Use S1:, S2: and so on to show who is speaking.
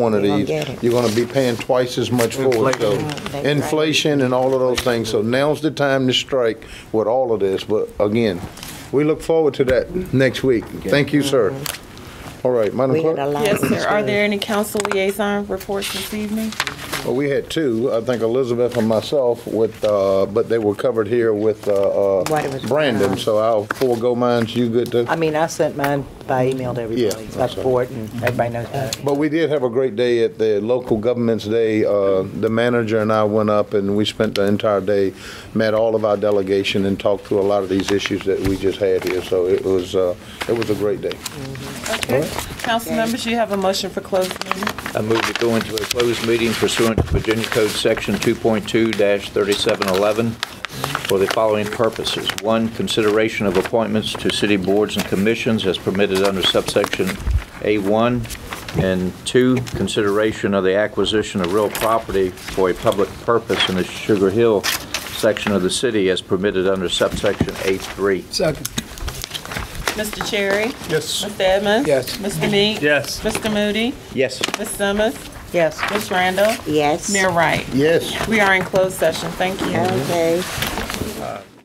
S1: one of
S2: They gonna
S1: these,
S2: get it.
S1: you're gonna be paying twice as much for it, so.
S2: Inflation. That's right.
S1: Inflation and all of those things, so now's the time to strike with all of this, but again, we look forward to that next week. Thank you, sir. All right, Madam
S2: Mm-hmm. We had a
S1: Clerk?
S2: lot.
S3: Yes,
S2: of
S3: sir. Are
S2: stories.
S3: there any council liaison reports this evening?
S1: Well, Oh, we had two, I think Elizabeth and myself with, uh, but they were covered here with, uh, uh,
S2: What it was-
S1: Brandon, so I'll forego mine, you good to?
S4: I mean, I sent mine by email to everybody,
S1: Yeah,
S4: by
S1: that's right.
S4: board, and everybody knows that.
S1: But we did have a great day at the local government's day. Uh, The manager and I went up and we spent the entire day, met all of our delegation and talked through a lot of these issues that we just had here. So it was, uh, it was a great day.
S3: Okay. Council members, you have a motion for closed meeting.
S5: I move to go into a closed meeting pursuant to Virginia Code Section 2.2-3711 for the following purposes. One, consideration of appointments to city boards and commissions as permitted under subsection A1. And two, consideration of the acquisition of real property for a public purpose in the Sugar Hill section of the city as permitted under subsection A3.
S6: Second.
S3: Mr. Cherry?
S6: Yes.
S3: Mr. Edmonds?
S6: Yes.
S3: Mr. Meek?
S6: Yes.
S3: Mr. Moody?
S5: Yes.
S3: Ms. Summers?
S4: Yes.
S3: Ms. Randall?
S2: Yes.
S3: Mayor Wright?
S1: Yes.
S3: We are in closed session. Thank you.
S2: Okay.